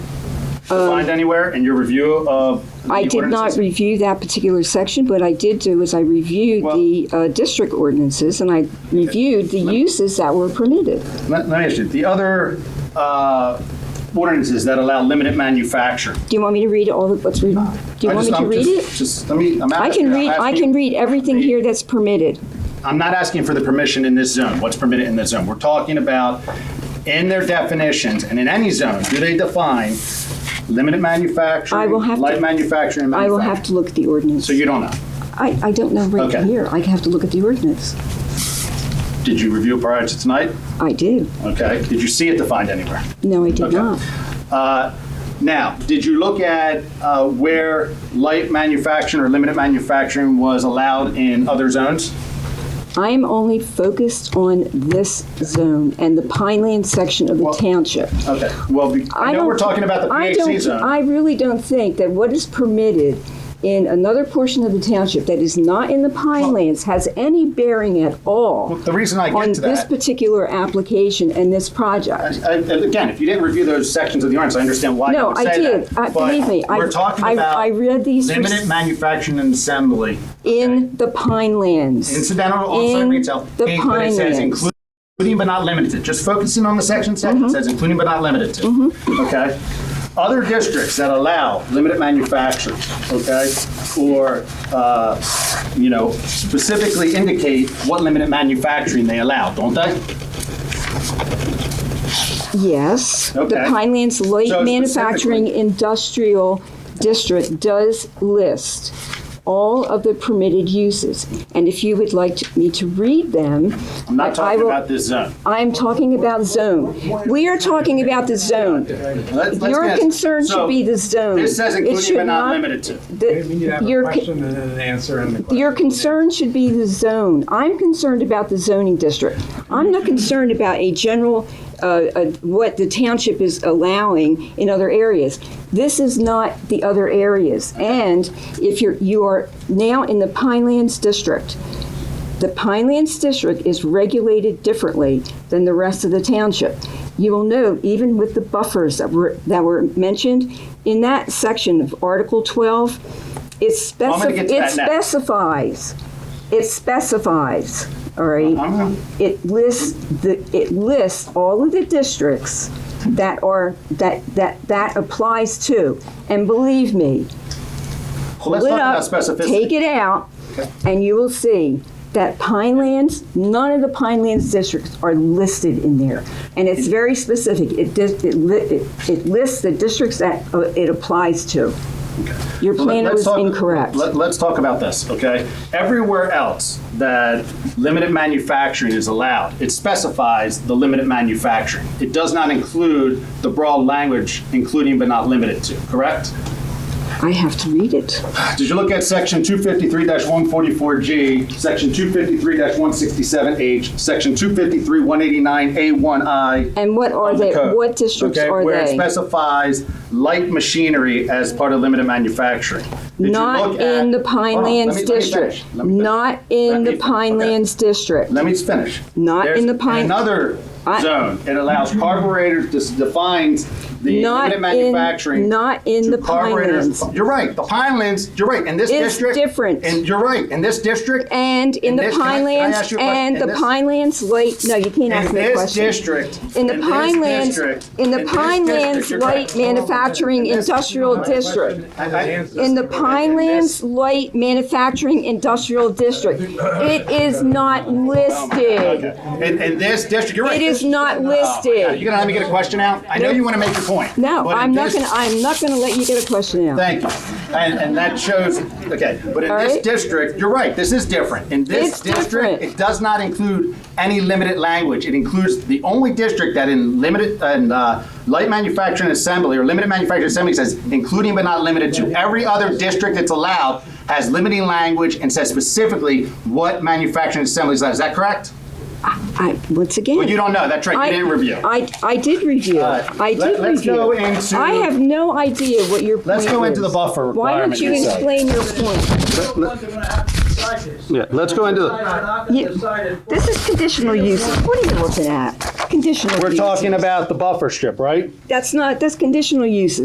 to find anywhere in your review of the I did not ordinances? review that particular section, but I did do is I reviewed Well- the uh, district ordinances and I reviewed the uses that were permitted. Let let me ask you, the other uh, ordinances that allow limited manufacture. Do you want me to read all the, what's, re- do you Uh, I want just- me to I'm read just- it? Just, let me, I'm I asking. can I'm read, I asking- can read everything here that's permitted. I'm not asking for the permission in this zone, what's permitted in this zone. We're talking about in their definitions and in any zone, do they define limited manufacturing, I will have to- light manufacturing, and I will have manufacturing? to look at the ordinance. So you don't know. I, I don't know right Okay. here. I have to look at the ordinance. Did you review it prior to tonight? I did. Okay. Did you see it defined anywhere? No, I did Okay. not. Uh, Now, did you look at uh, where light manufacturing or limited manufacturing was allowed in other zones? I'm only focused on this zone and the Pineland section of the Well, township. Okay, well, be- I know don't- we're talking about the I PHC don't- zone. I really don't think that what is permitted in another portion of the township that is not in the Pine Lands has any bearing at all The reason I on get to this that, particular application and this project. I- I- again, if you didn't review those sections of the ordinance, I understand why you No, would I say did. that. I- But Believe me, I, We're talking I- I about read these limited manufacturing and assembly, in the Pine Lands. incidental on-site In retail. the Hey, but it says Pinelands. including but not limited to, just focusing on the section section, it Mm-hmm. says including but not limited to. Okay? Other districts that allow limited manufacturing, okay? Or, uh, you know, specifically indicate what limited manufacturing they allow, don't they? Yes, the Okay. Pine Lands Light So Manufacturing specifically- Industrial District does list all of the permitted uses. And if you would like to- me to read them, I'm not I- I talking will- about this zone. I'm talking about zone. We are talking about the zone. Let's- let's Your guess. concern So, should be the zone. This says It including should but not limited to. the- We need to have your a con- question and an answer and the question. Your concern should be the zone. I'm concerned about the zoning district. I'm not concerned about a general, uh, uh, what the township is allowing in other areas. This is not the other areas. And if you're, you are now in the Pinelands district, the Pinelands district is regulated differently than the rest of the township. You will note, even with the buffers that were, that were mentioned, in that section of Article 12, it I'm gonna specif- get to it that next. specifies, it specifies, all right? I'm- It lists, the it lists all of the districts that are, that, that, that applies to. And believe me, Well, Let's pull talk it about up, take specificity. it out, and you will see that Pinelands, none of the Pinelands districts are listed in there. And it's very specific. It dis- it li- it it lists the districts that uh, it applies to. Your Well, let- planner let's was talk- incorrect. Let, us talk about this, okay? Everywhere else that limited manufacturing is allowed, it specifies the limited manufacturing. It does not include the broad language, including but not limited to, correct? I have to read it. Did you look at section 253-144G, section 253-167H, section 253-189A1I? And what are of the they, code, what districts okay, are Where it they? specifies light machinery as part of limited manufacturing. Did you Not look at- in the Hold on, let Pinelands me- let me district. finish, let me finish. Not Let in me the fin- okay. Pinelands district. Let me finish. Not in the Pine- There's Another I- zone. It allows carburetors, this defines the Not limited in, manufacturing. not in to the carburetors. Pinelands. You're right, the Pinelands, you're right, in this It's district. different. And you're right, in this district. And in In the this- can I- can I ask Pinelands, you a question? and In the this- Pinelands Light, no, you can't ask In me a this question. district. In the this district, Pinelands, in the this district, Pinelands you're Light correct. Manufacturing In this- Industrial District. Question and an answer. In the Pinelands Light Manufacturing Industrial District. It is not listed. In, in this district, you're right. It is not Oh Yeah, You're listed. gonna let me get a question out? I know you wanna make your point. No, but in I'm not this- gonna, I'm not gonna let you get a question out. Thank you. And, and that shows, okay, but in All this right. district, you're right, this is different. In this It's different. district, it does not include any limited language. It includes the only district that in limited, and uh, light manufacturing assembly or limited manufacturing assembly says including but not limited to. Every other district that's allowed has limiting language and says specifically what manufacturing assembly is. allowed. Is that correct? I, once again. Well, you don't know. That's right. You I- didn't review. I, I did review. All right. I Let- did let's review. go into- I have no idea what your point Let's go into the is. buffer Why don't requirement uh, you yourself. explain your point? Yeah, let's go into the, This is conditional use. What are you looking at? Conditional We're uses. talking about the buffer strip, right? That's not, that's conditional uses.